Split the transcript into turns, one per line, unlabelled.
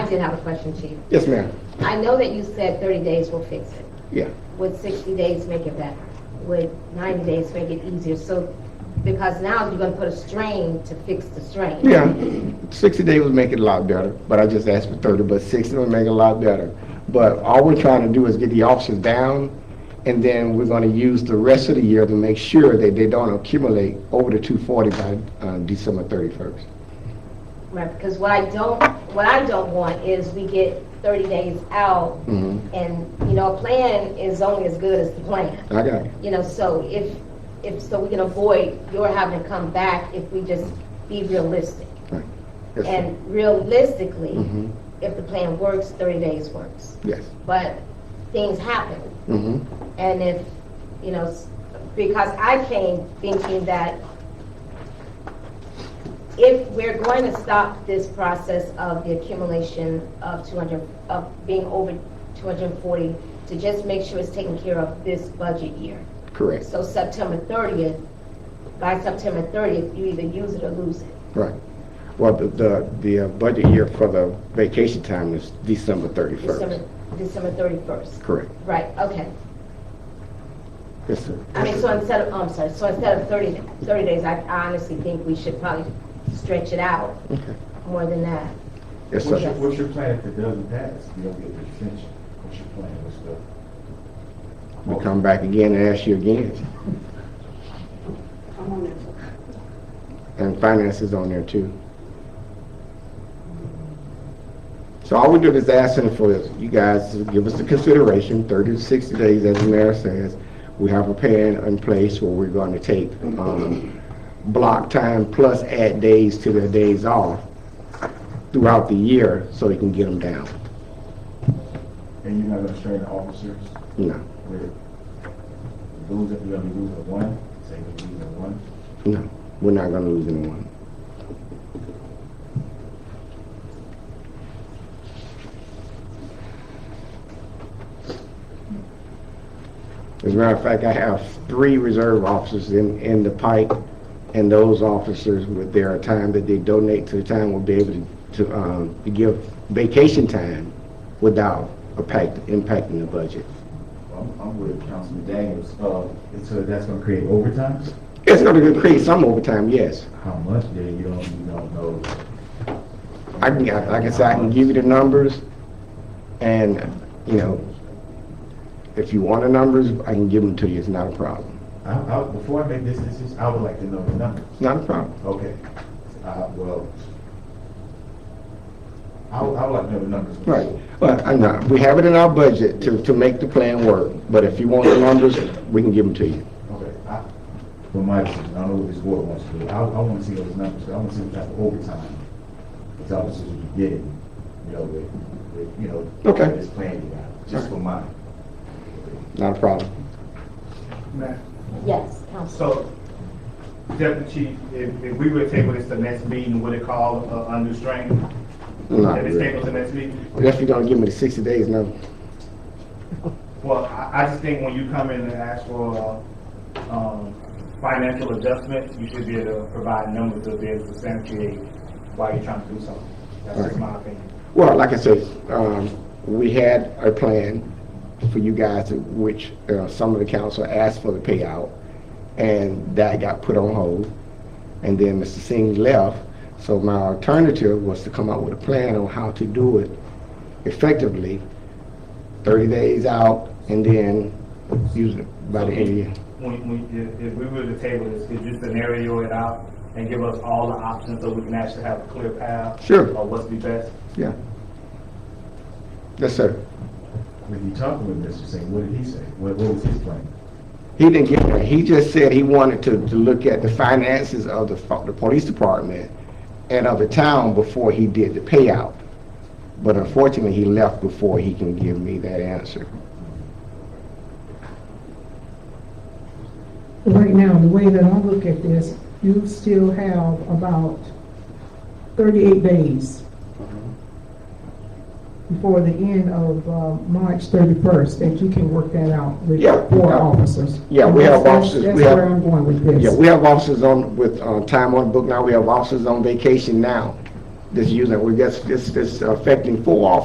did have a question, Chief.
Yes, ma'am.
I know that you said 30 days will fix it.
Yeah.
Would 60 days make it better? Would 90 days make it easier? So, because now you're going to put a strain to fix the strain.
Yeah, 60 days would make it a lot better, but I just asked for 30, but 60 would make it a lot better. But all we're trying to do is get the officers down, and then we're going to use the rest of the year to make sure that they don't accumulate over the 240 by uh, December 31st.
Right, because what I don't, what I don't want is we get 30 days out,
Mhm.
and, you know, a plan is only as good as the plan.
I got it.
You know, so if, if, so we can avoid your having to come back if we just be realistic.
Right. Yes, sir.
And realistically,
Mhm.
if the plan works, 30 days works.
Yes.
But things happen,
Mhm.
and if, you know, s- because I came thinking that if we're going to stop this process of the accumulation of 200, of being over 240, to just make sure it's taken care of this budget year.
Correct.
So September 30th, by September 30th, you either use it or lose it.
Right. Well, the- the, the uh, budget year for the vacation time is December 31st.
December, December 31st.
Correct.
Right, okay.
Yes, sir.
I mean, so instead of, oh, I'm sorry, so instead of 30, 30 days, I I honestly think we should probably stretch it out
Okay.
more than that.
Yes,
Would
sir.
you-
What's your, what's your plan if it doesn't pass? You don't get the extension. What's your plan? What's the?
We come back again and ask you again. And finance is on there too. So all we do is asking for is you guys to give us the consideration, thirty to sixty days, as the mayor says. We have a plan in place where we're going to take, um, block time plus add days to their days off throughout the year so they can get them down.
And you're not gonna train the officers
No,
with losing, you're gonna be losing one, say you're losing one.
no, we're not going to lose anyone. As a matter of fact, I have three reserve officers in, in the pike, and those officers with their time that they donate to the town will be able to, to, um, to give vacation time without impact, impacting the budget.
I'm, I'm with Councilman Daniels, uh, and so that's gonna create overtime?
It's gonna create some overtime, yes.
How much? Then you don't, you don't know.
I can, like I said, I can give you the numbers, and, you know, if you want the numbers, I can give them to you, it's not a problem.
I, I, before I make this decision, I would like to know the numbers.
It's not a problem.
Okay, uh, well, I, would- I would like to know the numbers.
Right, but I know, we have it in our budget to, to make the plan work, but if you want the numbers, we can give them to you.
Okay, I, for my decision, I don't know what this board wants to do. I, I wanna see those numbers, I wanna see what type of overtime these officers are getting, you know, with, with, you know,
Okay.
this plan you got, just for mine.
Not a problem.
Matt,
Yes, Council.
So, Deputy Chief, if, if we were to table this to next meeting, would it call a, a new strain?
Not
If it's
really.
tabled to next meeting?
Unless you're gonna give me the sixty days, no.
Well, I, I just think when you come in and ask for, uh, um, financial adjustment, you should be able to provide numbers to be able to substantiate why you're trying to do something. That's just my opinion.
Well, like I said, um, we had a plan for you guys, to- which, uh, some of the council asked for the payout, and that got put on hold. And then Mr. Singh left, so my alternative was to come up with a plan on how to do it effectively, thirty days out, and then use it by the end of the year.
When, when, if, if we were to table this, could you scenario it out and give us all the options so we can actually have a clear path?
Sure.
Of what's the best?
Yeah. Yes, sir.
When you talking with Mr. Singh, what did he say? What, what was his plan?
He didn't get that. He just said he wanted to, to look at the finances of the, fo- the police department and of the town before he did the payout. But unfortunately, he left before he can give me that answer.
Right now, the way that I look at this, you still have about thirty-eight days before the end of, uh, March thirty-first, that you can work that out with
Yeah.
four officers.
Yeah, we have
That's-
officers.
That's
We have-
where I'm going with
Yeah,
this.
we have officers on, with, uh, time on book now. We have officers on vacation now. this using, well, that's, that's, that's affecting four officers.